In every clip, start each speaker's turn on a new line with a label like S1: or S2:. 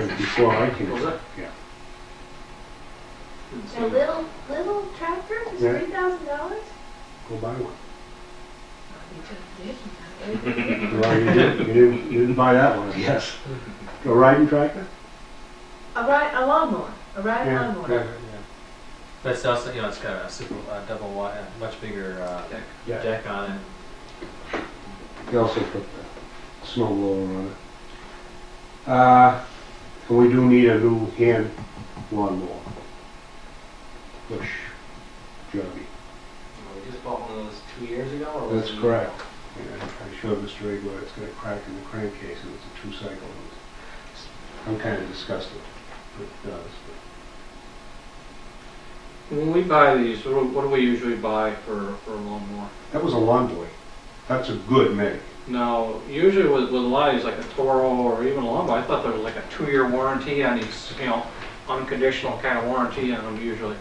S1: was before I came.
S2: Was it?
S1: Yeah.
S2: Didn't see
S3: A
S2: it.
S3: little, little tractor is
S1: Yeah.
S3: three thousand dollars?
S1: Go buy one.
S3: You took a dick.
S1: Well, you didn't, you didn't, you didn't buy that one, I guess. A riding tractor?
S3: A ride, a lawnmower, a ride
S1: Yeah,
S3: lawnmower.
S4: But it's also, you know, it's got a super uh, double wide, uh, much bigger uh,
S2: Deck.
S1: Yeah.
S4: deck on it.
S1: They also put the snow blower on it. Uh, and we do need a new hand lawnmower. Push, Johnny.
S5: We just bought one of those two years ago, or was
S1: That's
S5: it-
S1: correct. And I showed Mr. Igor, it's got a crack in the crankcase and it's a two-cycle. and it's- I'm kind of disgusted, but it does.
S2: When we buy these, what do- what do we usually buy for, for a lawnmower?
S1: but- That was a lawn boy. That's a good make.
S2: Now, usually with, with a lot of these, like a Toro or even a lawnmower, I thought there was like a two-year warranty on these, you know, unconditional kind of warranty on them usually.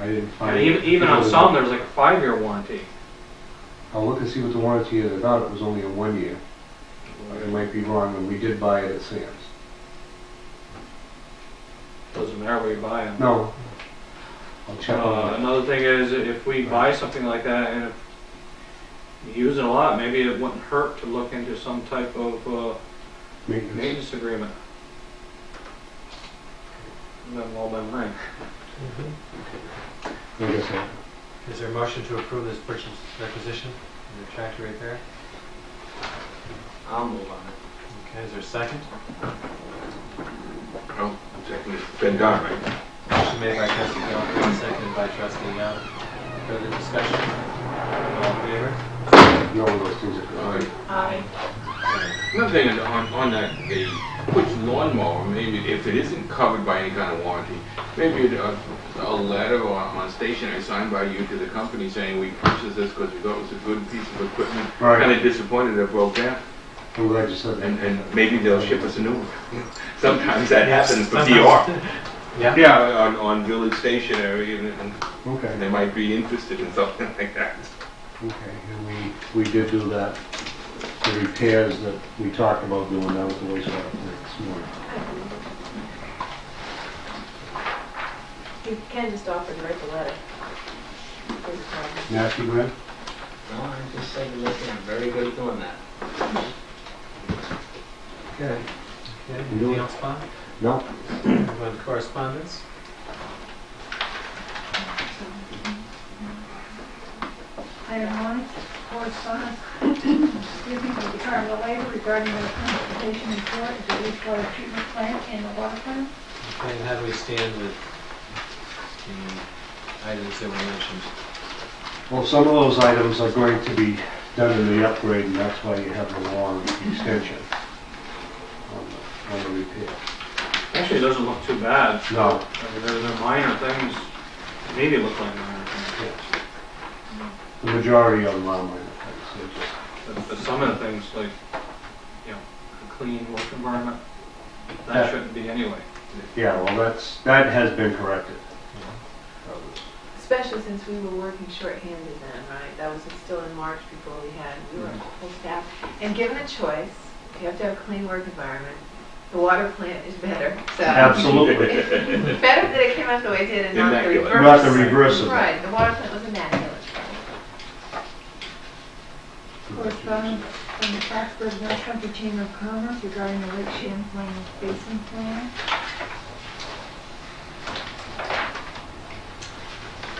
S1: I didn't find.
S2: And even, even on some, there's like a five-year warranty.
S1: I'll look and see what the warranty is. I thought it was only a one-year. I might be wrong, and we did buy it at Sam's.
S2: Doesn't matter where you buy them.
S1: No. I'll check
S2: Uh,
S1: on that.
S2: another thing is, if we buy something like that and if you use it a lot, maybe it wouldn't hurt to look into some type of, uh,
S1: Maintenance.
S2: maintenance agreement. And Then all by mine.
S1: I guess I-
S4: Is there a motion to approve this purchase requisition? And The tractor right there.
S5: I'll move on it.
S4: Okay, is there a second?
S6: Well, technically, it's been done, right?
S4: Motion made by trustee Calhoun, seconded by trustee Young. Further discussion? All in favor?
S1: No one of those things are good.
S3: I,
S6: Another thing on, on that, the which lawnmower, maybe if it isn't covered by any kind of warranty, maybe a, a letter or on stationery signed by you to the company saying we purchased this because we thought it was a good piece of equipment.
S1: Right.
S6: Kind of disappointed it broke down,
S1: I'm glad you said
S6: and,
S1: that.
S6: and maybe they'll ship us a new one. Sometimes that happens for
S4: Sometimes-
S6: DR.
S4: Yeah.
S6: Yeah, on, on village stationery, and, and
S1: Okay,
S6: they might be interested in something like that.
S1: okay. And we, we did do that, the repairs that we talked about doing that with the wastewater plant this morning.
S3: you can just offer to write the letter. There's a problem.
S1: Nasty Brad?
S5: No, I just said, listen, I'm very good at doing that.
S1: Okay.
S4: Okay, anything else, Bob?
S1: No,
S4: Anyone correspondence?
S7: I have one correspondence, excuse me, from the Department of Labor regarding the transportation in court at the wastewater treatment plant and the water plant.
S4: Okay, and how do we stand with the items that were mentioned?
S1: Well, some of those items are going to be done in the upgrade, and that's why you have the long extension on the, on the repair.
S2: Actually, it doesn't look too bad.
S1: No,
S2: I mean, there, there are minor things, maybe look like minor things,
S1: yes. The majority of them are minor things, they're just
S2: but, but some of the things like, you know, a clean work environment, that
S1: Yeah.
S2: shouldn't be anyway.
S1: Yeah, well, that's, that has been corrected.
S3: Especially since we were working shorthanded then, right? That was still in March before we had, we were full staff. And given a choice, you have to have a clean work environment. The water plant is better, so.
S1: Absolutely.
S3: It's Better that it came out the way it did and not the
S6: Immaculate.
S3: reverse.
S1: Not the reverse of that.
S3: Right, the water plant was immaculate.
S7: Correspondence from the Foxborough North Country Chamber of Commerce regarding the Lake Champlain Basin Plan.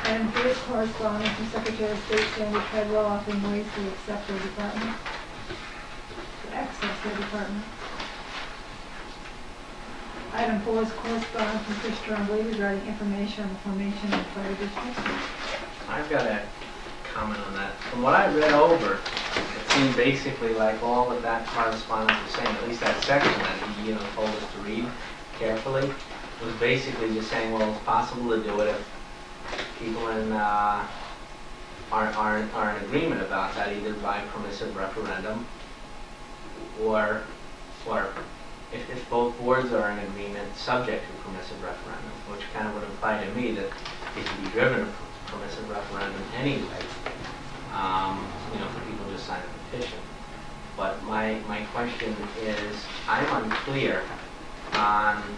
S7: Item three is correspondence from Secretary of State Sandra Treadwell offering ways to accept their department, to access their department. Item four is correspondence from Chris Tremblay regarding information on the formation of the fire district.
S5: I've got a comment on that. From what I read over, it seemed basically like all of that correspondence was saying, at least that section that he, you know, told us to read carefully, was basically just saying, well, it's possible to do it if people in, uh, aren't, aren't, are in agreement about that, either by permissive referendum or, or if, if both boards are in agreement, subject to permissive referendum, which kind of would imply to me that it can be driven to permissive referendum anyway. Um, you know, if people just sign a petition. But my, my question is, I'm unclear on